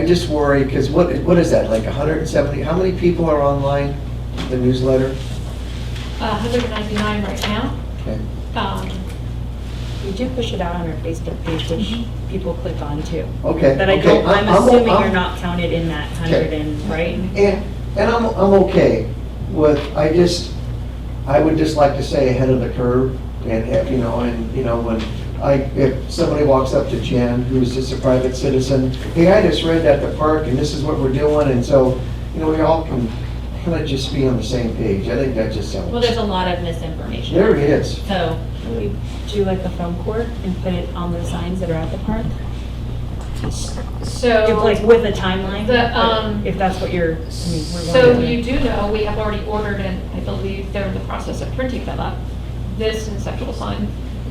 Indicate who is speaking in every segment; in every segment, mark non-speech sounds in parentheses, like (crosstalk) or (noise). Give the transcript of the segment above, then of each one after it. Speaker 1: I just worry, because what, what is that, like 170, how many people are online, the newsletter?
Speaker 2: Uh, 199 right now.
Speaker 1: Okay.
Speaker 2: Um,
Speaker 3: We do push it out on our Facebook page, which people click on too.
Speaker 1: Mm-hmm. Okay.
Speaker 3: But I
Speaker 1: okay,
Speaker 3: don't, I'm
Speaker 1: I'm-
Speaker 3: assuming you're
Speaker 1: I'm-
Speaker 3: not counted in that hundred and, right?
Speaker 1: And, and I'm, I'm okay with, I just, I would just like to stay ahead of the curve and have, you know, and, you know, when I, if somebody walks up to Jen, who's just a private citizen, hey, I just read that at the park and this is what we're doing, and so, you know, we all can kind of just be on the same page. I think that just sounds.
Speaker 2: Well, there's a lot of misinformation.
Speaker 1: There it is.
Speaker 2: So,
Speaker 3: Can we do like a film court and put it on the signs that are at the park? If, Like
Speaker 2: so,
Speaker 3: with a timeline?
Speaker 2: The, um,
Speaker 3: If that's what you're, I mean, we're.
Speaker 2: so
Speaker 3: wondering.
Speaker 2: you do know, we have already ordered, and I believe they're in the process of printing that up, this conceptual sign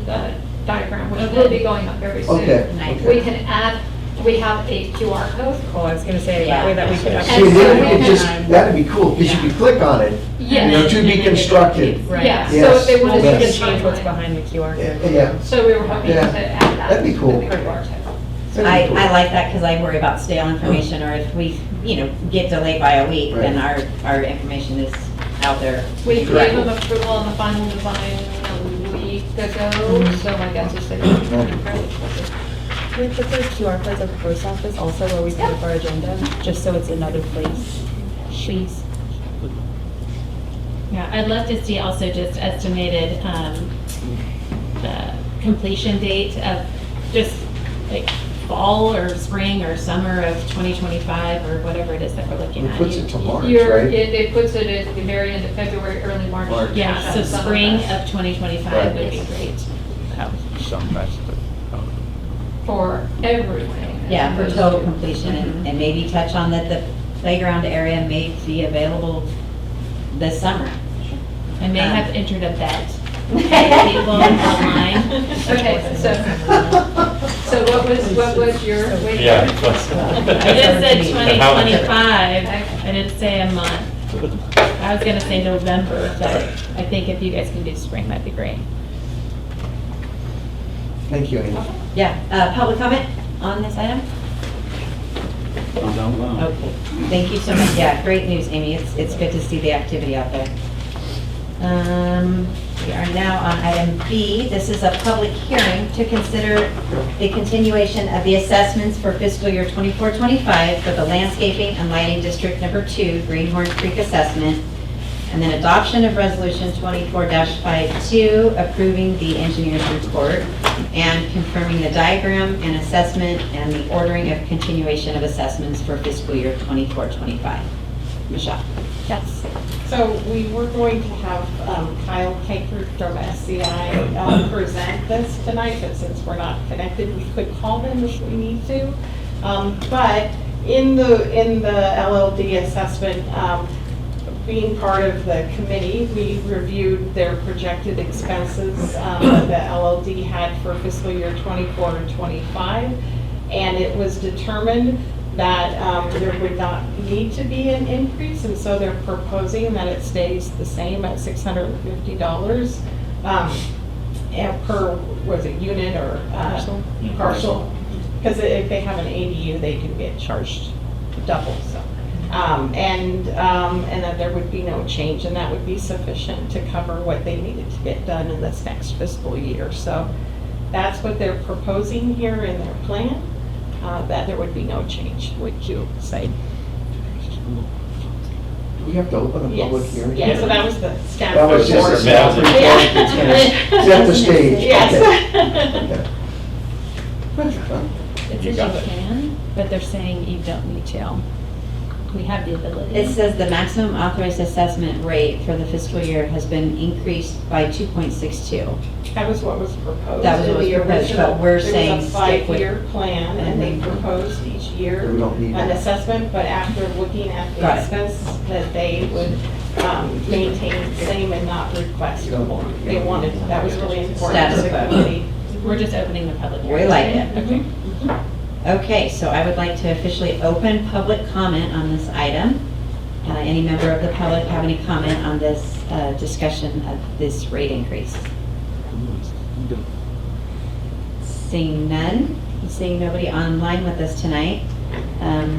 Speaker 2: uh, diagram, which will be going up very soon.
Speaker 1: Okay.
Speaker 2: We can add, we have a QR code.
Speaker 3: Well, Oh, I was gonna say that way that we could.
Speaker 4: Yeah.
Speaker 1: See,
Speaker 3: update
Speaker 2: And so
Speaker 1: that-
Speaker 2: we
Speaker 1: it
Speaker 3: it
Speaker 1: just,
Speaker 3: on-
Speaker 1: that'd be cool, because you could click on it, you know,
Speaker 2: Yes,
Speaker 1: to be constructed.
Speaker 3: Right.
Speaker 2: yeah, so if they
Speaker 3: Well,
Speaker 2: want
Speaker 3: we
Speaker 2: to
Speaker 3: can
Speaker 2: see the
Speaker 3: change what's
Speaker 2: timeline.
Speaker 3: behind the QR
Speaker 1: Yeah,
Speaker 3: code.
Speaker 1: yeah.
Speaker 2: So we were hoping to
Speaker 1: Yeah.
Speaker 2: add that.
Speaker 1: That'd be cool.
Speaker 2: to the QR code.
Speaker 1: That'd be
Speaker 5: I,
Speaker 1: cool.
Speaker 5: I
Speaker 1: (laughs)
Speaker 5: like that because I worry about stale information, or if we, you know, get delayed by a week, then our, our information is out there.
Speaker 2: We gave
Speaker 1: Correct.
Speaker 2: them approval on the final design a week
Speaker 1: Mm-hmm.
Speaker 2: ago, so my guess is they're going to be fairly quick.
Speaker 3: With the first QR codes at the post office also where we set up our agenda, just so it's another place. Please.
Speaker 6: Yeah, I'd love to see also just estimated um, uh, completion date of just like fall or spring or summer of 2025 or whatever it is that we're looking
Speaker 1: It
Speaker 6: at.
Speaker 1: puts it to March,
Speaker 2: You're, it,
Speaker 1: right?
Speaker 2: it puts it at the very end of February, early March.
Speaker 1: March.
Speaker 6: Yeah, so
Speaker 2: Some of
Speaker 6: spring
Speaker 2: us
Speaker 6: of 2025
Speaker 1: Right.
Speaker 6: would be great.
Speaker 4: Some festival.
Speaker 2: For everything.
Speaker 5: Yeah, for total completion,
Speaker 2: Mm-hmm.
Speaker 5: and and maybe touch on that the playground area may be available this summer.
Speaker 6: I may
Speaker 5: Um,
Speaker 6: have entered a bet. with People online.
Speaker 2: Okay, so, so what was, what was your? wait.
Speaker 4: Yeah.
Speaker 6: I just said 2025.
Speaker 2: Okay.
Speaker 6: I didn't say a month. I was going to say November, but I think if you guys can do spring, that'd be great.
Speaker 1: Thank you, Amy.
Speaker 5: Yeah, uh, public comment on this item? Okay, thank you so much, yeah, great news, Amy, it's, it's good to see the activity out there. Um, we are now on item B, this is a public hearing to consider the continuation of the assessments for fiscal year 24-25 for the landscaping and lighting district number two, Greenhorn Creek assessment, and then adoption of resolution 24-52, approving the engineer's report and confirming the diagram and assessment and the ordering of continuation of assessments for fiscal year 24-25. Michelle?
Speaker 6: Yes.
Speaker 7: So we were going to have um, Kyle Kaker from SCI um, present this tonight, but since we're not connected, we could call them if we need to. Um, But in the, in the LLD assessment, um, being part of the committee, we reviewed their projected expenses um, that the LLD had for fiscal year '24 and '25. And it was determined that um, there would not need to be an increase, and so they're proposing that it stays the same at $650 um, and per, was it unit or? Parcel. Parcel, because if they have an ADU, they do get charged double, so. Um, And, um, and that there would be no change, and that would be sufficient to cover what they needed to get done in this next fiscal year. So that's what they're proposing here in their plan, uh, that there would be no change, would you say?
Speaker 1: Do we have to open a public
Speaker 7: Yes.
Speaker 1: hearing?
Speaker 7: Yeah, so that was the staff.
Speaker 1: That was just a
Speaker 7: report.
Speaker 1: staff report.
Speaker 7: (laughs)
Speaker 1: that's gonna Set the stage. Okay.
Speaker 7: Yes.
Speaker 1: Okay. (laughs)
Speaker 6: It
Speaker 4: You
Speaker 6: says
Speaker 4: got it.
Speaker 6: you can, but they're saying you don't need to. We have the ability.
Speaker 5: It says the maximum authorized assessment rate for the fiscal year has been increased by 2.62.
Speaker 7: (laughs) That was what was proposed.
Speaker 5: That was
Speaker 7: in
Speaker 5: what was
Speaker 7: the
Speaker 5: proposed,
Speaker 7: original.
Speaker 5: but we're saying
Speaker 7: There was a
Speaker 5: stick with-
Speaker 7: five-year plan, and they proposed each year
Speaker 1: We don't need
Speaker 7: an
Speaker 1: that.
Speaker 7: assessment, but after looking at
Speaker 5: Got
Speaker 7: the
Speaker 5: it.
Speaker 7: expenses, that they would um, maintain the same and not request more. They wanted, that was really important to the
Speaker 5: Status quo.
Speaker 7: committee.
Speaker 6: We're just opening the public hearing.
Speaker 5: We like it.
Speaker 6: Okay.
Speaker 5: Okay, so I would like to officially open public comment on this item. Uh, Any member of the public have any comment on this uh, discussion of this rate increase? Seeing none, seeing nobody online with us tonight. um,